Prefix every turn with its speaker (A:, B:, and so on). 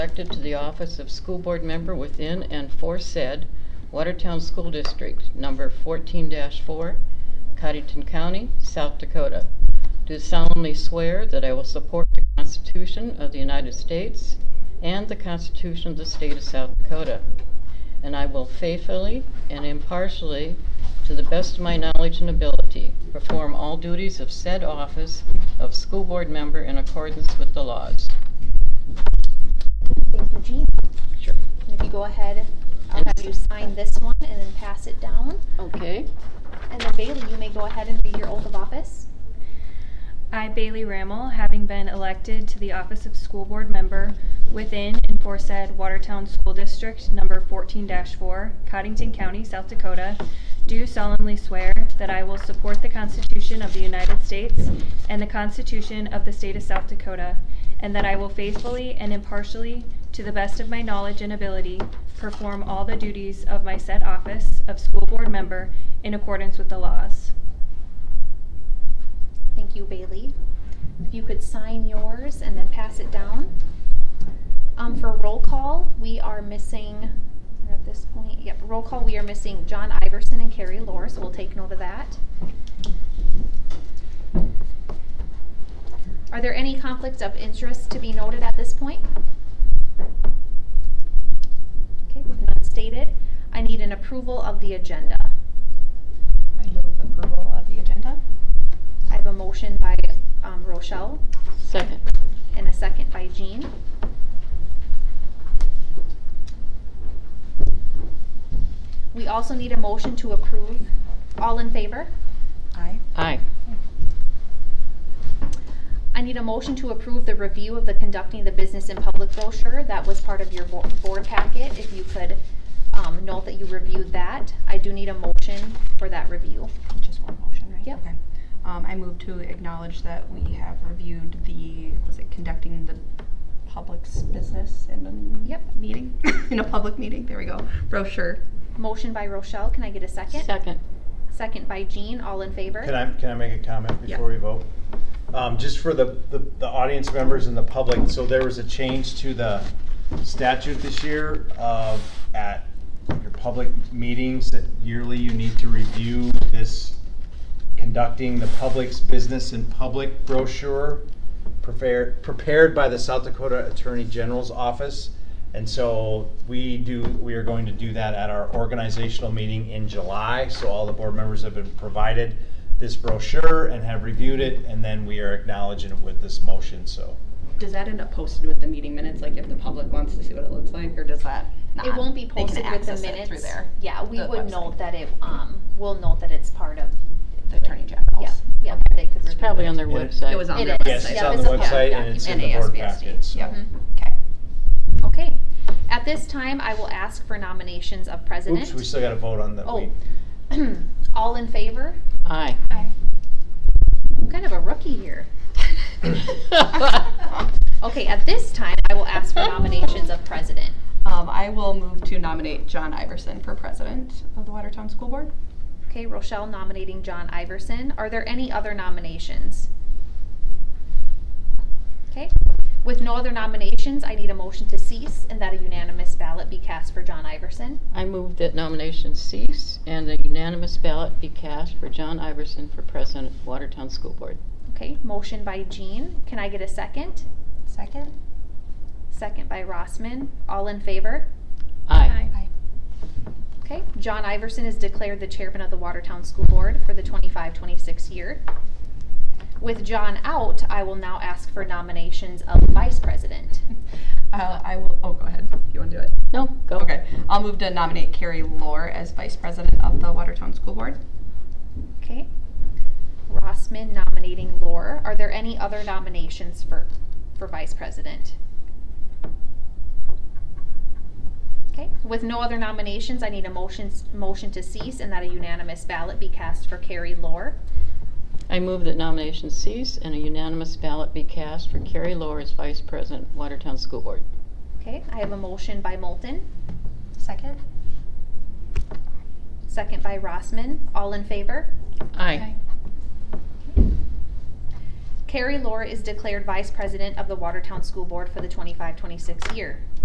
A: elected to the office of school board member within and for said Watertown School District, number fourteen four, Cottington County, South Dakota. Do solemnly swear that I will support the Constitution of the United States and the Constitution of the State of South Dakota. And I will faithfully and impartially, to the best of my knowledge and ability, perform all duties of said office of school board member in accordance with the laws.
B: Thank you, Jean.
A: Sure.
B: And If you go ahead, I'll
A: And
B: have you sign this one and then pass it down.
A: Okay.
B: And then Bailey, you may go ahead and read your oath of office.
C: I, Bailey Rammel, having been elected to the office of school board member within and for said Watertown School District Number 14-4, Cottington County, South Dakota, do solemnly swear that I will support the Constitution of the United States and the Constitution of the State of South Dakota, and that I will faithfully and impartially, to the best of my knowledge and ability, perform all the duties of my said office of school board member in accordance with the laws.
B: Thank you, Bailey. If you could sign yours and then pass it down. Um, for roll call, we are missing, we're at this point, yep, roll call, we are missing John Iverson and Carrie Lor, so we'll take note of that. Are there any conflicts of interest to be noted at this point? Okay, with none stated, I need an approval of the agenda.
D: I move approval of the agenda.
B: I have a motion by, um, Rochelle.
A: Second.
B: And a second by Jean. We also need a motion to approve. All in favor?
D: Aye.
A: Aye.
B: I need a motion to approve the review of the conducting the business in public brochure. That was part of your bo- board packet. If you could um, note that you reviewed that. I do need a motion for that review.
D: Just one motion, right?
B: Yep.
D: Okay. Um, I move to acknowledge that we have reviewed the, was it conducting the public's business in a
B: Yep.
D: meeting? In a public meeting, there we go, brochure.
B: Motion by Rochelle. Can I get a second?
A: Second.
B: Second by Jean. All in favor?
E: Can I, can I make a comment
D: Yeah.
E: before we vote? Um, just for the, the, the audience members and the public, so there was a change to the statute this year of, at your public meetings, that yearly you need to review this conducting the public's business in public brochure prepared, prepared by the South Dakota Attorney General's Office. And so we do, we are going to do that at our organizational meeting in July. So all the board members have been provided this brochure and have reviewed it, and then we are acknowledging it with this motion, so.
D: Does that end up posted?
F: posted with the meeting minutes, like if the public wants to see what it looks like, or does that not?
B: It won't be
F: they can
B: posted with the
F: access it
B: minutes.
F: Through there,
B: Yeah, we
F: the
B: would
F: website.
B: note that it, um, we'll note that it's part of,
F: the attorney general's.
B: yeah, yeah, they could review
A: It's probably on their
E: It-
A: website.
F: It was on
B: It
F: their
B: is.
F: website.
E: Yes, it's
B: Yeah,
E: on
B: it's
E: the
B: a public
E: website and it's in the board
F: document.
E: packet, so.
D: Yep.
B: Mhm.
F: Mm-hmm.
D: Okay.
B: Mm-hmm. Okay. At this time, I will ask for nominations of president.
E: Oops, we still gotta vote on the,
B: Oh.
E: we,
B: All in favor?
A: Aye.
B: I'm kind of a rookie here. Okay, at this time, I will ask for nominations of president.
D: Um, I will move to nominate John Iverson for president of the Watertown School Board.
B: Okay, Rochelle nominating John Iverson. Are there any other nominations? Okay. With no other nominations, I need a motion to cease and that a unanimous ballot be cast for John Iverson.
A: I move that nominations cease and the unanimous ballot be cast for John Iverson for president of Watertown School Board.
B: Okay, motion by Jean. Can I get a second?
D: Second.
B: Second by Rossman. All in favor?
A: Aye.
B: Okay, John Iverson is declared the chairman of the Watertown School Board for the 25-26 year. With John out, I will now ask for nominations of vice president.
D: Uh, I will, oh, go ahead. You want to do it?
A: No, go.
D: Okay. I'll move to nominate Carrie Lor as vice president of the Watertown School Board.
B: Okay. Rossman nominating Lore. Are there any other nominations for, for vice president? Okay, with no other nominations, I need a motion, motion to cease and that a unanimous ballot be cast for Carrie Lore.
A: I move that nominations cease and a unanimous ballot be cast for Carrie Lohr as vice president, Watertown School Board.
B: Okay, I have a motion by Moulton,
D: Second.
B: second by Rossman. All in favor?
A: Aye.
B: Carrie Lore is declared vice president of the Watertown School Board for the 25-26 year.